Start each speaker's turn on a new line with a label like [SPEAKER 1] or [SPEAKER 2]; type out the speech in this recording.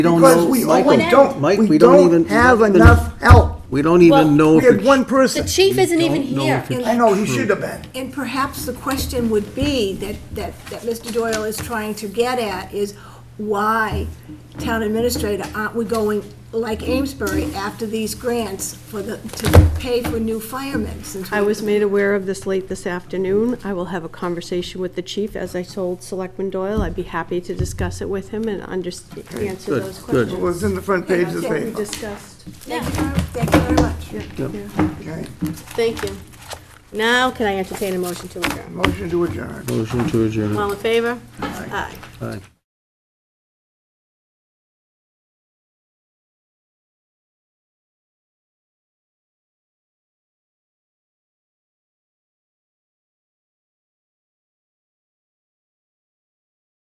[SPEAKER 1] We don't
[SPEAKER 2] Because
[SPEAKER 1] know,
[SPEAKER 2] we
[SPEAKER 1] Mike,
[SPEAKER 2] we don't,
[SPEAKER 1] Mike,
[SPEAKER 2] we
[SPEAKER 1] we don't even.
[SPEAKER 2] don't have enough help.
[SPEAKER 1] We don't
[SPEAKER 3] Well,
[SPEAKER 1] even know
[SPEAKER 2] We
[SPEAKER 1] if
[SPEAKER 2] had
[SPEAKER 1] it's
[SPEAKER 2] one
[SPEAKER 3] The
[SPEAKER 2] person.
[SPEAKER 3] chief isn't even
[SPEAKER 1] don't know
[SPEAKER 3] here.
[SPEAKER 1] if it's-
[SPEAKER 2] I know, he should have been.
[SPEAKER 4] And perhaps the question would be, that, that, that Mr. Doyle is trying to get at, is why town administrator, aren't we going, like Amesbury, after these grants for the, to pay for new firemen, since we...
[SPEAKER 5] I was made aware of this late this afternoon. I will have a conversation with the chief, as I told Selectman Doyle. I'd be happy to discuss it with him and underst answer
[SPEAKER 1] good,
[SPEAKER 5] those
[SPEAKER 1] good.
[SPEAKER 2] It
[SPEAKER 5] questions
[SPEAKER 2] was in the front page of the
[SPEAKER 5] that we
[SPEAKER 2] paper.
[SPEAKER 5] discussed.
[SPEAKER 4] Thank you very- thank you very much.
[SPEAKER 2] Okay,
[SPEAKER 5] Thank you. Now, can I entertain a motion to adjourn?
[SPEAKER 2] motion to adjourn.
[SPEAKER 1] Motion to adjourn.
[SPEAKER 5] All in favor? Aye.
[SPEAKER 1] Aye.